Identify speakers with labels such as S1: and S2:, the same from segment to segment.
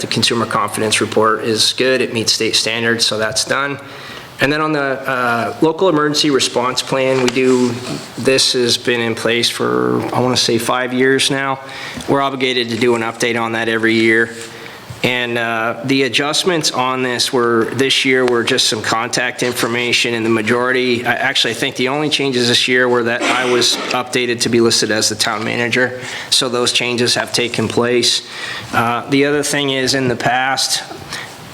S1: The consumer confidence report is good, it meets state standards, so that's done. And then on the uh, local emergency response plan, we do, this has been in place for, I want to say, five years now. We're obligated to do an update on that every year. And uh, the adjustments on this were, this year were just some contact information, and the majority, I- actually, I think the only changes this year were that I was updated to be listed as the town manager, so those changes have taken place. Uh, The other thing is, in the past,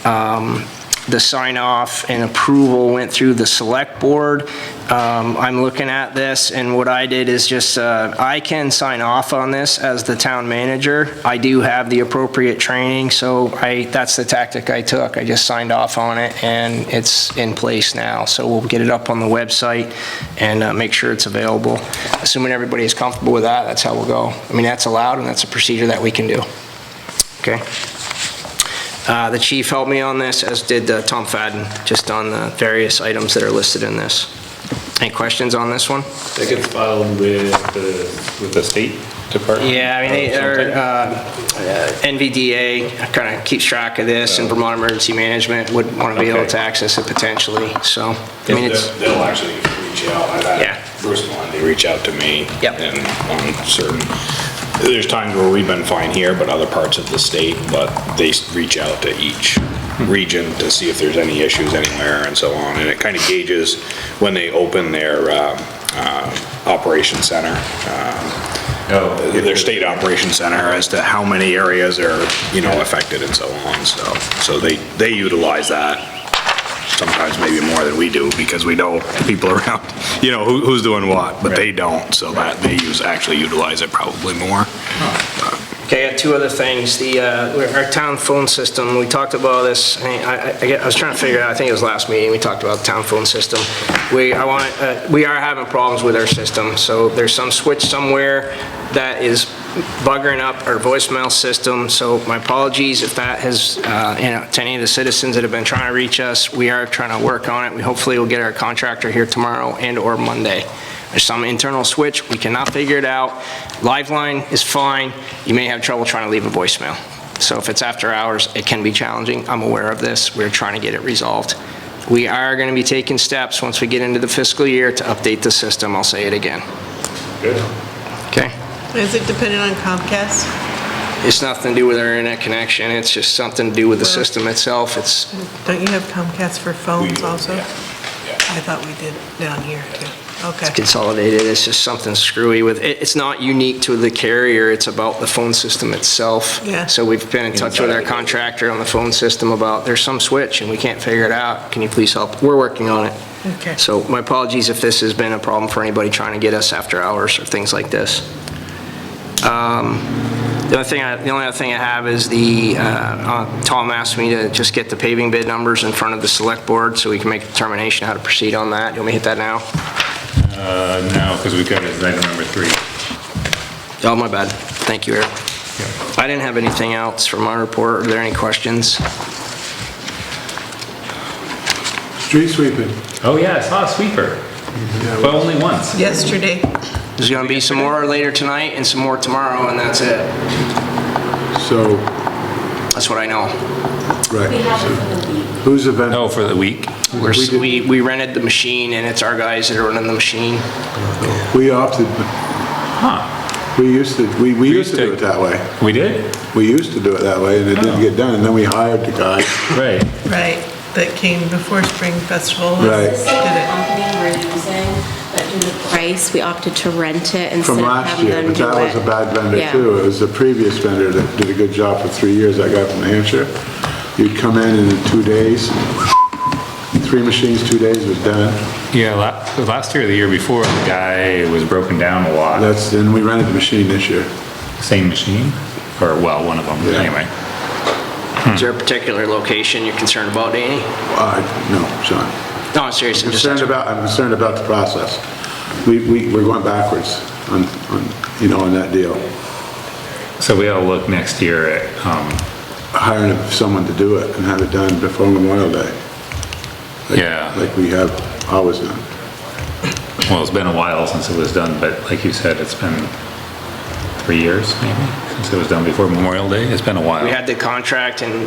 S1: um, the sign-off and approval went through the select board. Um, I'm looking at this, and what I did is just, uh, I can sign off on this as the town manager. I do have the appropriate training, so I, that's the tactic I took. I just signed off on it, and it's in place now. So we'll get it up on the website and uh, make sure it's available. Assuming everybody is comfortable with that, that's how we'll go. I mean, that's allowed, and that's a procedure that we can do. Okay? Uh, The chief helped me on this, as did uh, Tom Fadden, just on the various items that are listed in this. Any questions on this one?
S2: That gets filed with the, with the state department?
S1: Yeah, I mean, they-
S2: or
S1: or,
S2: something?
S1: uh, NVDA kind of keeps track of this, and Vermont Emergency Management would want to be able to
S2: Okay.
S1: access it potentially, so, I mean, it's,
S3: They'll they'll actually reach out. I've
S1: Yeah.
S3: had Bruce Blondie reach out to me.
S1: Yep.
S3: And on certain, there's times where we've been fine here, but other parts of the state, but they s- reach out to each region to see if there's any issues anywhere and so on. And it kind of gauges when they open their um, uh, operation center, um,
S2: Oh.
S3: their state operation center, as to how many areas are, you know, affected and so on. So, so they, they utilize that sometimes maybe more than we do, because we know people around, you know, who- who's doing what, but they don't, so that, they use, actually utilize it probably more.
S1: okay, I got two other things. The, uh, our town phone system, we talked about this, I- I I- I was trying to figure out, I think it was last meeting, we talked about the town phone system. We, I want, uh, we are having problems with our system, so there's some switch somewhere that is buggering up our voicemail system, so my apologies if that has, uh, you know, to any of the citizens that have been trying to reach us, we are trying to work on it. We hopefully will get our contractor here tomorrow and/or Monday. There's some internal switch, we cannot figure it out. Lifeline is fine, you may have trouble trying to leave a voicemail. So if it's after hours, it can be challenging, I'm aware of this, we're trying to get it resolved. We are going to be taking steps, once we get into the fiscal year, to update the system, I'll say it again,
S2: Good.
S1: okay?
S4: Is it dependent on Comcast?
S1: It's nothing to do with our internet connection, it's just something to do with the system itself, it's,
S4: Don't you have Comcast for phones
S3: do,
S4: also?
S3: yeah.
S4: I thought we did down here too. Okay.
S1: consolidated, it's just something screwy with, it, it's not unique to the carrier, it's about the phone system itself.
S4: Yeah.
S1: So we've been in touch with our contractor on the phone system about, there's some switch and we can't figure it out, can you please help? We're working on it.
S4: Okay.
S1: So my apologies if this has been a problem for anybody trying to get us after hours or things like this. Um, The other thing, I- the only other thing I have is the, uh, uh, Tom asked me to just get the paving bid numbers in front of the select board so we can make a determination how to proceed on that. You want me to hit that now?
S2: Uh, no, because we've got it as item number three.
S1: Oh, my bad. Thank you, Eric. I didn't have anything else from my report. Are there any questions?
S5: Street sweeping.
S2: Oh, yeah, I saw a sweeper, but only once.
S4: Yesterday,
S1: There's going to be some more later tonight and some more tomorrow, and that's it.
S5: So,
S1: That's what I know.
S6: We
S5: right.
S6: have it for the week.
S5: Who's event?
S2: Oh, for the week?
S1: We're, s-
S5: did-
S1: we, we rented the machine and it's our guys that are running the machine.
S5: We opted,
S2: Huh,
S5: we used to, we, we used
S2: used
S5: to do
S2: to-
S5: it that way.
S2: we did?
S5: We used to do it that way and it didn't get done. And then we hired the guy.
S2: Right.
S4: right, that came before Spring Festival.
S5: Right.
S6: The
S4: Did
S6: same
S4: it.
S6: company we're using, but due to price, we opted to rent it instead
S5: From
S6: of
S5: last
S6: having
S5: year,
S6: them
S5: but
S6: do
S5: that was
S6: it.
S5: a bad vendor
S6: Yeah.
S5: too. It was the previous vendor that did a good job for three years, that guy from New Hampshire. You'd come in and in two days, three machines, two days was done.
S2: Yeah, la- last year or the year before, the guy was broken down a lot.
S5: That's, and we rented the machine this year.
S2: Same machine, or well, one of them,
S5: Yeah.
S2: anyway.
S1: Is there a particular location you're concerned about, Danny?
S5: Uh, no, Sean.
S1: No, I'm serious. I'm just
S5: concerned
S1: asking.
S5: about, I'm concerned about the process. We, we, we're going backwards on, on, you know, on that deal.
S2: So we ought to look next year at, um,
S5: Hiring someone to do it and have it done before Memorial Day,
S2: yeah,
S5: like we have always done.
S2: well, it's been a while since it was done, but like you said, it's been three years, maybe? since it was done before Memorial Day. It's been a while.
S1: We had the contract and